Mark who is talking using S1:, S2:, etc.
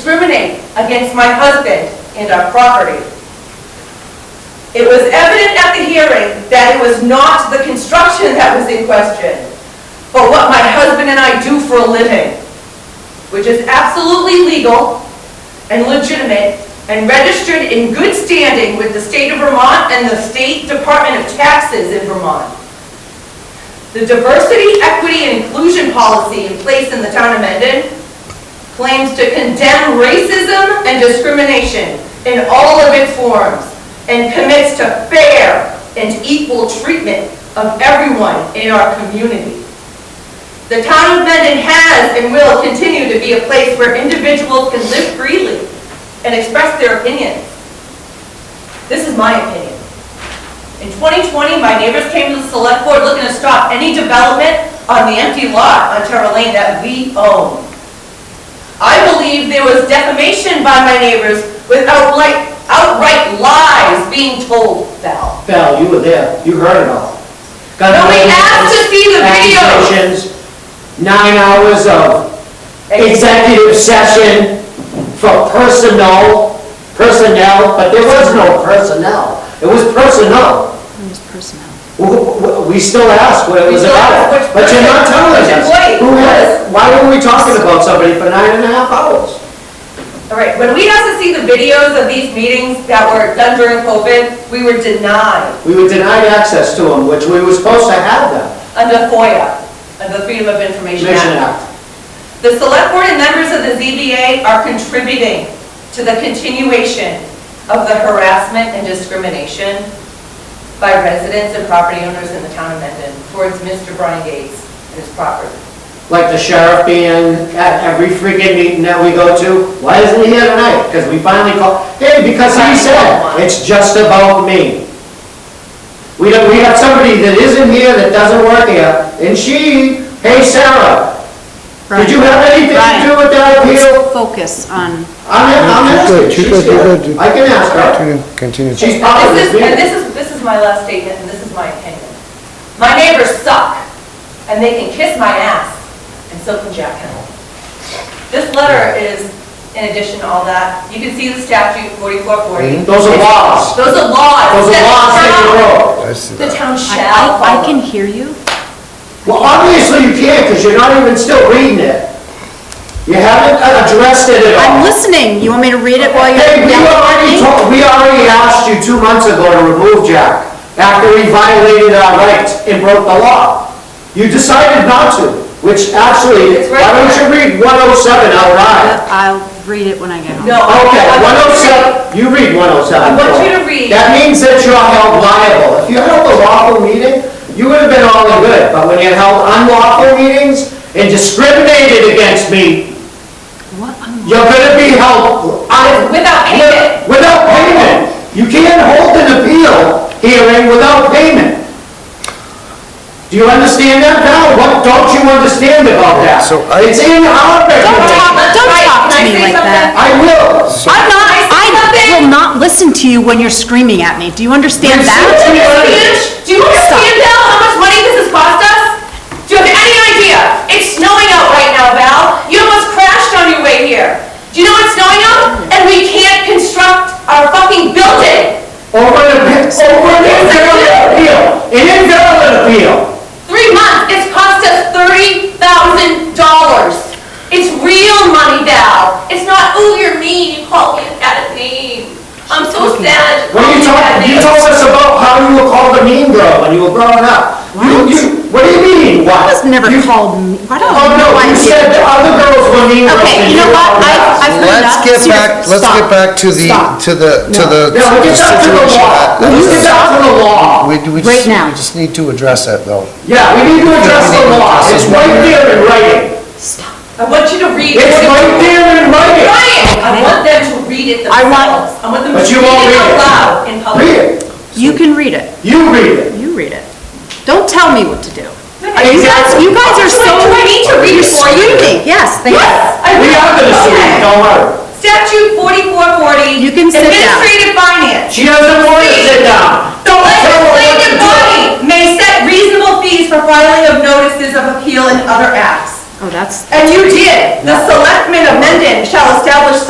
S1: discriminate against my husband and our property. It was evident at the hearing that it was not the construction that was in question, but what my husband and I do for a living, which is absolutely legal and legitimate and registered in good standing with the state of Vermont and the State Department of Taxes in Vermont. The diversity, equity, and inclusion policy in place in the town of Mendon claims to condemn racism and discrimination in all of its forms and commits to fair and equal treatment of everyone in our community. The town of Mendon has and will continue to be a place where individuals can live freely and express their opinions. This is my opinion. In 2020, my neighbors came to the select board looking to stop any development on the empty lot on Terra Lane that we own. I believe there was defamation by my neighbors with outright, outright lies being told, Val.
S2: Val, you were there, you heard it all. Gun
S1: No, we
S2: violence,
S1: asked to see the video.
S2: accusations, Nine hours of executive session for personnel, personnel, but there was no personnel. It was personnel.
S3: It was personnel.
S2: W- w- We still ask what it
S1: We
S2: was
S1: still
S2: about,
S1: ask which
S2: but you're not
S1: person,
S2: telling
S1: which
S2: us.
S1: employee
S2: Who
S1: it
S2: was-
S1: was.
S2: Why were we talking about somebody for nine and a half hours?
S1: All right, when we asked to see the videos of these meetings that were done during COVID, we were denied
S2: We were denied access to them, which we were supposed to have them,
S1: under FOIA, under the Freedom of Information
S2: Commission
S1: Act.
S2: Act.
S1: The select board and members of the ZBA are contributing to the continuation of the harassment and discrimination by residents and property owners in the town of Mendon towards Mr. Brian Gates and his property.
S2: like the sheriff being at every freaking meeting that we go to, why isn't he here tonight? Because we finally called, hey, because he said, it's just about me. We don't, we have somebody that isn't here, that doesn't work here, and she, hey, Sarah, did you have anything to do with that appeal?
S3: Let's focus on,
S2: I'm, I'm asking, she's here, I can ask her.
S4: Continue, continue.
S2: She's
S1: And
S2: part of this
S1: is- And
S2: meeting.
S1: this is, this is my last statement, and this is my opinion. My neighbors suck, and they can kiss my ass, and so can Jack Kennel. This letter is, in addition to all that, you can see the statute 4440.
S2: Those are laws,
S1: Those are laws.
S2: those are
S1: that
S2: laws that you
S1: the
S2: wrote.
S4: I see.
S1: town- The town
S3: I-
S1: shall
S3: I, I
S1: follow.
S3: can hear you.
S2: Well, obviously you can't, because you're not even still reading it. You haven't addressed it at all.
S3: I'm listening. You want me to read it while you're
S2: Hey, we
S3: yelling at
S2: already
S3: me?
S2: told, we already asked you two months ago to remove Jack after he violated our rights and broke the law. You decided not to, which actually,
S1: It's right
S2: why don't you read 107 out loud?
S3: Uh, I'll read it when I get home.
S1: No. I-
S2: Okay,
S1: I want you to read-
S2: 107, you read 107.
S1: I want you to read.
S2: That means that you're held liable. If you held a lawful meeting, you would have been all in good, but when you held unlawful meetings and discriminated against me,
S3: What? I'm-
S2: you're gonna be held, I,
S1: Without payment.
S2: Without payment. You can't hold an appeal hearing without payment. Do you understand that, Val? What don't you understand about that?
S4: So I-
S2: It's in our
S3: Don't
S2: regulation.
S3: talk, don't
S1: Right,
S3: talk
S1: can I
S3: to me
S1: say
S3: like
S1: something?
S3: that.
S2: I will.
S3: I'm not,
S1: Can I say something?
S3: I will not listen to you when you're screaming at me. Do you understand
S2: You're
S3: that?
S2: so-
S1: Do you understand- do you understand, Val, how much money this has cost us? Do you have any idea? It's snowing out right now, Val. You almost crashed on your way here. Do you know it's snowing out? And we can't construct our fucking building.
S2: Over an appeal, over an invalid appeal, an invalid appeal.
S1: Three months, it's cost us thirty thousand dollars. It's real money, Val. It's not, oh, you're mean, you called me a bad name. I'm so sad.
S2: What are you talking, you told us about how you were called a mean girl when you were growing up. You, you, what do you mean, what?
S3: I was never
S2: You-
S3: called, me- I don't
S2: Oh,
S3: know
S2: no,
S3: why
S2: you
S3: I'm
S2: said
S3: here.
S2: the other girls were mean girls.
S3: Okay,
S2: and
S3: you know
S2: were
S3: what,
S2: called
S3: I,
S2: that.
S3: I've heard
S4: Let's
S3: enough.
S4: get
S3: Seriously,
S4: back, let's
S3: stop.
S4: get back to the,
S3: Stop.
S4: to the, to
S3: No.
S4: the
S2: No,
S4: to
S2: we
S4: the
S2: get back to the
S4: situation.
S2: law.
S4: at- at
S2: We
S4: this-
S2: get back to the law.
S4: We, we
S3: Right
S4: just, we
S3: now.
S4: just need to address that though.
S2: Yeah, we need to address the law. It's right there in writing.
S1: I want you to read.
S2: It's right there in writing.
S1: Brian, I want them to read it
S3: I want-
S1: themselves. I want them to
S2: But
S1: read
S2: you won't
S1: it
S2: read
S1: out
S2: it.
S1: loud in
S2: Read
S1: public.
S2: it.
S3: You can read it.
S2: You read it.
S3: You read it. Don't tell me what to do. You guys,
S2: Exactly.
S3: you guys are so.
S1: Do I need to read it
S3: You're
S1: for you?
S3: screaming. Yes, thank you.
S1: Yes, I
S2: We
S1: will.
S2: are gonna sue you,
S1: Okay.
S2: don't worry.
S1: Statute forty-four forty.
S3: You can sit down.
S1: Administrative finance.
S2: She doesn't want to sit down.
S1: The
S2: Don't tell her what to
S1: legislative
S2: do.
S1: body may set reasonable fees for filing of notices of appeal and other acts.
S3: Oh, that's
S1: And you did. The selectmen amended shall establish